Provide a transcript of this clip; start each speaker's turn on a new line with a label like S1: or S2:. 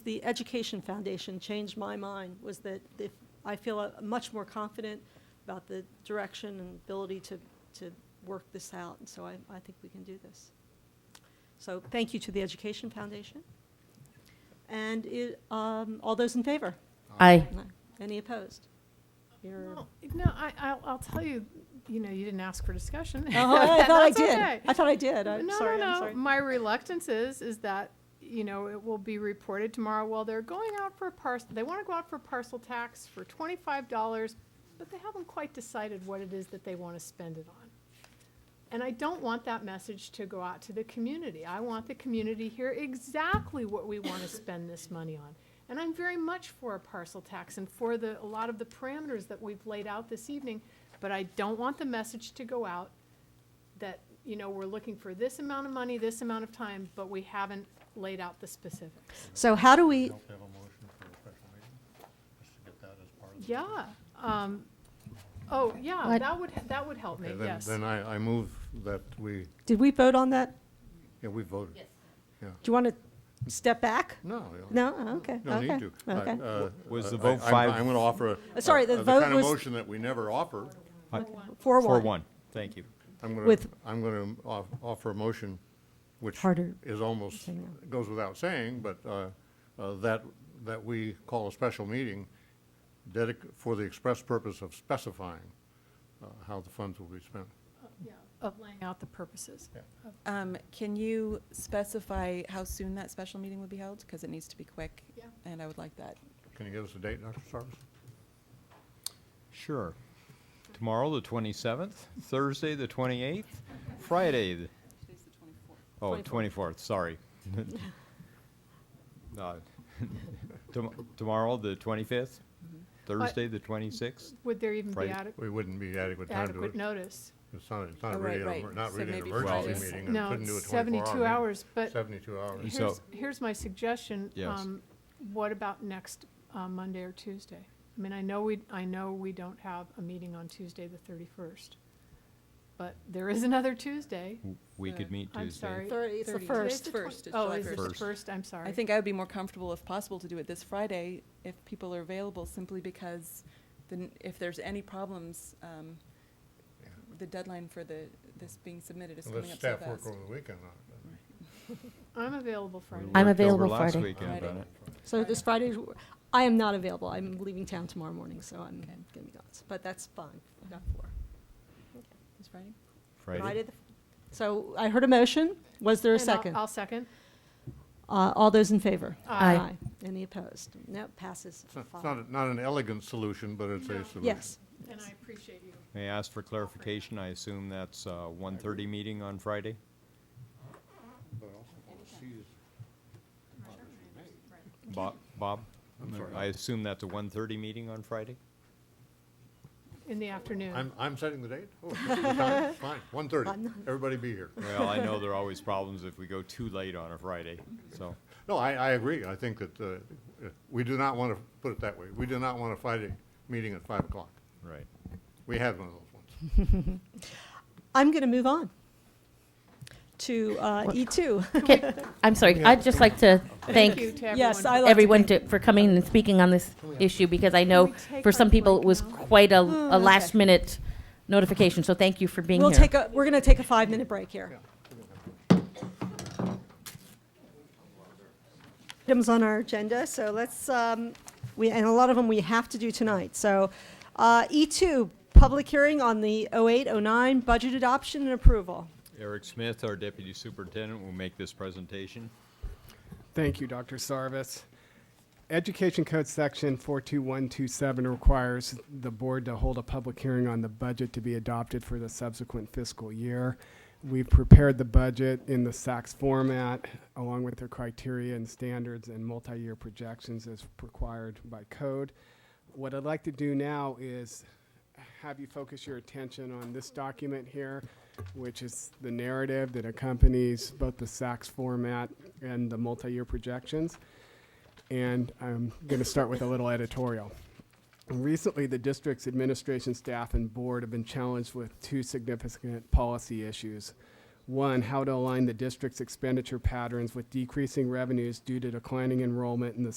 S1: the Education Foundation changed my mind, was that if, I feel uh, much more confident about the direction and ability to, to work this out, and so I, I think we can do this. So thank you to the Education Foundation. And it, um, all those in favor?
S2: Aye.
S1: No. Any opposed? You're-
S3: Well, No, I, I'll, I'll tell you, you know, you didn't ask for discussion.
S1: Oh, I thought I
S3: That's
S1: did.
S3: okay.
S1: I thought I did. I'm
S3: No,
S1: sorry. I'm
S3: no, no.
S1: sorry.
S3: My reluctance is, is that, you know, it will be reported tomorrow, well, they're going out for a parcel, they want to go out for parcel tax for twenty-five dollars, but they haven't quite decided what it is that they want to spend it on. And I don't want that message to go out to the community. I want the community to hear exactly what we want to spend this money on. And I'm very much for a parcel tax and for the, a lot of the parameters that we've laid out this evening, but I don't want the message to go out that, you know, we're looking for this amount of money, this amount of time, but we haven't laid out the specifics.
S1: So how do we,
S4: Don't we have a motion for a special meeting? Just to get that as part of the.
S3: Yeah, um, oh, yeah,
S2: What?
S3: that would, that would help me,
S4: Okay, then-
S3: yes.
S4: Then I, I move that we,
S1: did we vote on that?
S4: yeah, we voted. Yes.
S1: Do you want to step back?
S4: No.
S1: No? Oh, Okay.
S4: Don't
S1: okay,
S4: need to. I-
S1: Okay.
S4: uh,
S5: Was the
S4: I-
S5: vote
S4: I'm-
S5: five-
S4: I'm going to offer a.
S1: Uh, sorry,
S4: a-
S1: the
S4: a-
S1: vote
S4: The kind of
S1: was-
S4: motion that we never offer.
S1: Four
S5: Four,
S1: one.
S5: one. Thank you.
S4: I'm going to,
S1: With-
S4: I'm going to offer a motion which
S2: Harder.
S4: is almost,
S2: Say no.
S4: goes without saying, but uh, uh, that, that we call a special meeting dedic, for the express purpose of specifying uh, how the funds will be spent.
S3: Yeah, Of laying out the purposes.
S6: Um, Can you specify how soon that special meeting would be held? Because it needs to be quick.
S3: Yeah.
S6: And I would like that.
S4: Can you give us a date, Dr. Sarvis?
S5: Sure. Tomorrow, the 27th, Thursday, the 28th, Friday, the,
S6: Today's the 24th.
S5: oh,
S1: 24th.
S5: 24th, sorry. Uh, tom- Tomorrow, the 25th, Thursday, the 26th.
S3: Would there even be
S5: Right.
S3: ade-
S4: We wouldn't be adequate time to do
S3: adequate
S4: it.
S3: notice?
S4: It's not, it's not
S6: Oh,
S4: really,
S6: right,
S4: an emer-
S6: right.
S4: not
S6: So
S4: really an
S6: maybe
S4: emergency
S6: Friday.
S4: meeting. and
S3: No,
S4: couldn't do a
S3: it's
S4: 24
S3: seventy-two
S4: hour meeting.
S3: hours, but
S4: Seventy-two hours.
S5: So-
S3: here's, here's my suggestion.
S5: Yes.
S3: Um, What about next uh, Monday or Tuesday? I mean, I know we, I know we don't have a meeting on Tuesday, the thirty-first, but there is another Tuesday.
S5: We
S6: Uh,
S5: could meet Tuesday.
S3: I'm sorry.
S1: Thir- it's the
S6: 30.
S1: first.
S3: Today's the twen-
S6: First, it's
S3: Oh,
S6: July
S3: is it the
S5: first.
S3: first? I'm sorry.
S6: I think I would be more comfortable, if possible, to do it this Friday if people are available, simply because then if there's any problems, um,
S4: Yeah.
S6: the deadline for the, this being submitted is coming
S4: Unless
S6: up so
S4: staff work
S6: fast.
S4: over the weekend on
S3: I'm available
S5: We
S3: Friday.
S5: worked
S2: I'm
S5: over
S2: available
S5: last
S2: Friday.
S5: weekend
S6: Friday.
S5: on it.
S1: So this Friday, I am not available. I'm leaving town tomorrow morning, so I'm going to be gone. But that's fine. I've got four.
S6: This Friday?
S1: Friday the- So I heard a motion. Was there a
S3: And I'll-
S1: 2nd
S3: I'll second.
S1: Uh, all those in favor?
S3: Aye.
S2: Aye.
S1: Any opposed? No, passes
S4: it. It's not,
S1: five.
S4: a- not an elegant solution, but it's a solution.
S1: Yes.
S3: And I appreciate you.
S5: May I ask for clarification? I assume that's uh, 1:30 meeting on Friday? Bob, Bob? I assume that's a 1:30 meeting on Friday?
S3: In the afternoon.
S4: I'm, I'm setting the date? Oh, it's the time? Fine, one thirty. Everybody be here.
S5: Well, I know there are always problems if we go too late on a Friday, so.
S4: No, I, I agree. I think that, uh, uh, we do not want to, put it that way, we do not want a Friday meeting at five o'clock.
S5: Right.
S4: We had one of those once.
S1: I'm going to move on to uh, E2.
S2: Okay, I'm sorry, I'd just like to
S3: Thank you
S2: thank
S3: to everyone.
S1: Yes, I like to
S2: everyone to- for coming and speaking on this issue, because I know
S3: we take
S2: for
S3: our Hmm,
S2: some people,
S3: break
S2: it was
S3: now?
S2: quite a
S1: okay.
S2: last-minute notification, so thank you for being
S1: We'll take
S2: here.
S1: a, we're going to take a five-minute break here. Items on our agenda, so let's, um, we, and a lot of them we have to do tonight. So uh, E2, public hearing on the 08, 09 budget adoption and approval.
S5: Eric Smith, our deputy superintendent, will make this presentation.
S7: Thank you, Dr. Sarvis. Education Code Section 42127 requires the board to hold a public hearing on the budget to be adopted for the subsequent fiscal year. We've prepared the budget in the SACS format, along with the criteria and standards and multi-year projections as required by code. What I'd like to do now is have you focus your attention on this document here, which is the narrative that accompanies both the SACS format and the multi-year projections. And I'm going to start with a little editorial. Recently, the district's administration staff and board have been challenged with two significant policy issues. One, how to align the district's expenditure patterns with decreasing revenues due to declining enrollment in the